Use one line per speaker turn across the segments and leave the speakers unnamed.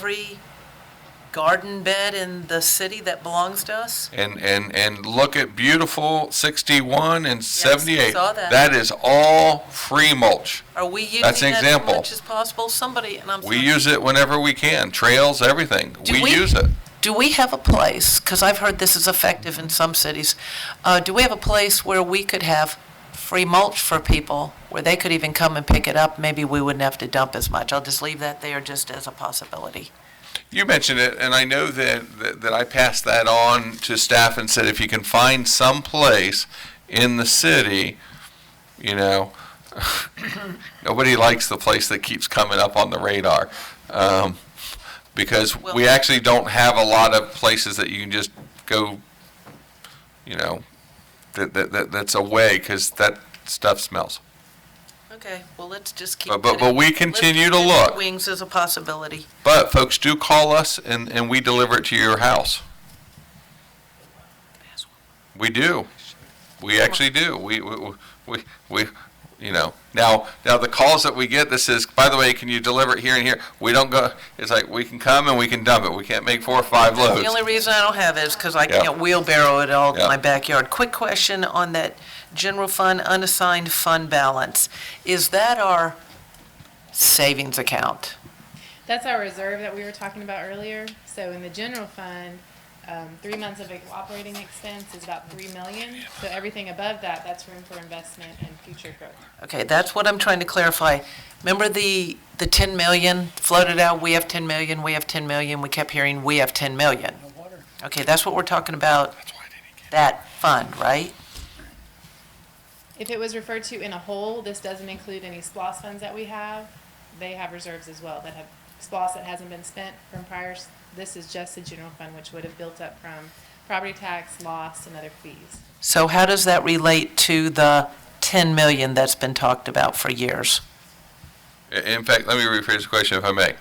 every garden bed in the city that belongs to us?
And, and, and look at beautiful 61 and 78.
saw that.
That is all free mulch.
Are we using
That's an
that as
example.
much as possible? Somebody, and I'm
We
sorry.
use it whenever we can, trails, everything.
Mm-hmm. Do
We
we-
use it.
Do we have a place, because I've heard this is effective in some cities, uh, do we have a place where we could have free mulch for people, where they could even come and pick it up? Maybe we wouldn't have to dump as much. I'll just leave that there just as a possibility.
You mentioned it, and I know that, that, that I passed that on to staff and said, if you can find some place in the city, you know, nobody likes the place that keeps coming up on the radar. Um, because we
Well-
actually don't have a lot of places that you can just go, you know, that, that, that, that's away, cause that stuff smells.
Okay, well, let's just keep.
But, but, but we continue to look.
Wings as a possibility.
But folks do call us and, and we deliver it to your house. We do. We actually do. We, we, we, we, you know, now, now the calls that we get, this is, by the way, can you deliver it here and here? We don't go, it's like, we can come and we can dump it. We can't make four or five
The
loads.
only reason I don't have it is because I
Yeah.
can't wheelbarrow it all in
Yeah.
my backyard. Quick question on that general fund unassigned fund balance. Is that our savings account?
That's our reserve that we were talking about earlier. So in the general fund, um, three months of operating expense is about three million. So everything above that, that's room for investment and future growth.
Okay, that's what I'm trying to clarify. Remember the, the 10 million floated out, we have 10 million, we have 10 million, we kept hearing, we have 10 million? Okay, that's what we're talking about, that fund, right?
If it was referred to in a whole, this doesn't include any SPOS funds that we have. They have reserves as well that have, SPOS that hasn't been spent from prior, s- this is just the general fund, which would have built up from property tax, loss, and other fees.
So how does that relate to the 10 million that's been talked about for years?
In fact, let me rephrase the question if I may.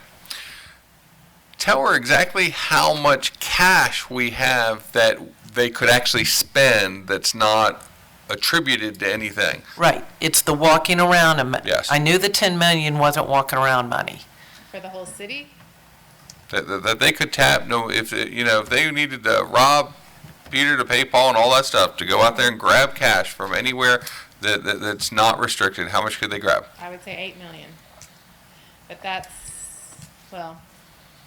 Tell her exactly how much cash we have that they could actually spend that's not attributed to anything.
Right, it's the walking around. am-
Yes.
I knew the 10 million wasn't walking around money.
For the whole city,
that, that, that they could tap. No, if it- you know if they needed to rob Peter to pay Paul and all that stuff to go out there and grab cash from anywhere that, that that's not restricted, how much could they grab?
I would say eight million. But that's, well,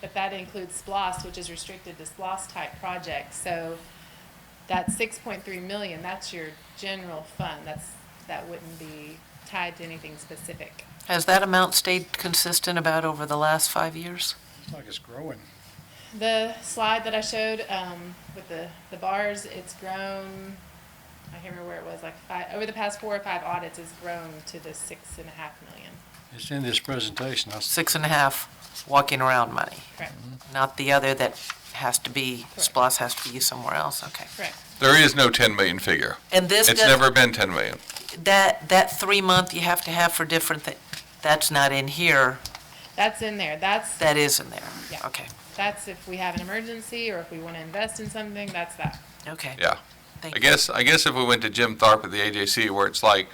but that includes SPOS, which is restricted to SPOS-type projects, so that's six point three million, that's your general fund, that's, that wouldn't be tied to anything specific.
Has that amount stayed consistent about over the last five years?
It's like it's growing.
The slide that I showed, um, with the, the bars, it's grown, I can't remember where it was, like five, over the past four or five audits, it's grown to the six and a half million,
It's in this presentation. I s-
Six and a half walking around money,
correct,
not the other that has to be, SPOS has to be somewhere else, okay.
correct.
There is no 10 million figure.
And this,
It's
does-
never been 10 million.
that, that three month you have to have for different, thi- that's not in here,
That's in there, that's
that is in there?
Yeah.
Okay,
That's if we have an emergency or if we want to invest in something, that's that.
okay.
Yeah.
Thank
I
you.
guess I guess if we went to Jim Tharp at the AJC where it's like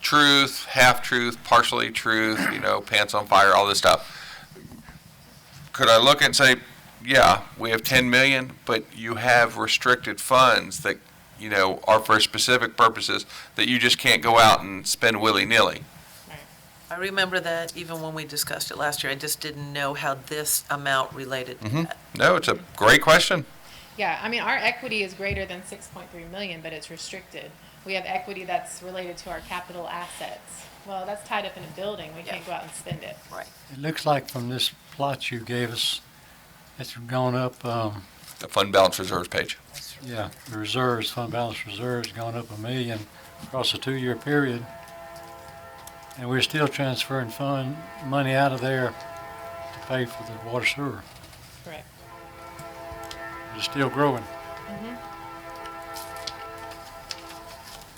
truth, half truth, partially truth, you know, pants on fire, all this stuff. Could I look and say, yeah, we have ten million, but you have restricted funds that, you know, are for specific purposes that you just can't go out and spend willy-nilly.
I remember that even when we discussed it last year, I just didn't know how this amount related to
Mm-hmm.
that.
No, it's a great question.
Yeah, I mean, our equity is greater than six point three million, but it's restricted. We have equity that's related to our capital assets. Well, that's tied up in a building. We can't go out and spend it.
Right.
It looks like from this plot you gave us, it's gone up, um,
The fund balance reserves page.
yeah, the reserves, fund balance reserves gone up a million across a two-year period. And we're still transferring fund, money out of there to pay for the water sewer.
Correct.
It's still growing.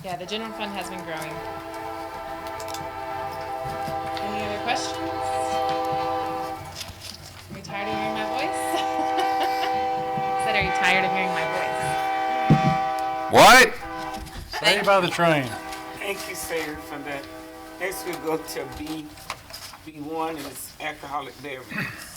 Yeah, the general fund has been growing. Any other questions? Are you tired of hearing my voice? I Said, are you tired of hearing my voice?
What?
Stay by the train.
Thank you, sir, for that. Next we go to B, B one is alcoholic beverages.